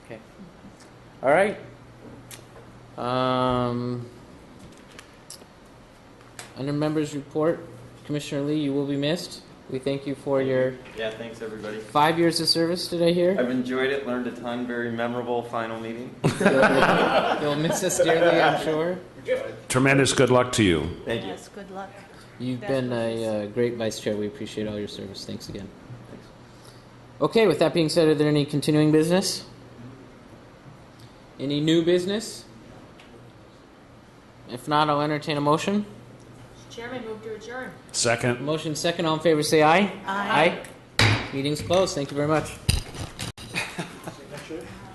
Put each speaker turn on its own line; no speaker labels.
Okay. All right. Um, under members report, Commissioner Lee, you will be missed. We thank you for your
Yeah, thanks, everybody.
five years of service, did I hear?
I've enjoyed it, learned a ton, very memorable final meeting.
You'll you'll miss us dearly, I'm sure.
Tremendous good luck to you.
Thank you.
Yes, good luck.
You've
Best
been
wishes.
a uh, great vice chair. We appreciate all your service. Thanks again. Okay, with that being said, are there any continuing business? Any new business? If not, I'll entertain a motion.
Chairman, move to adjourn.
Second.
Motion second, all in favor, say aye.
Aye.
Aye. Meeting's closed. Thank you very much.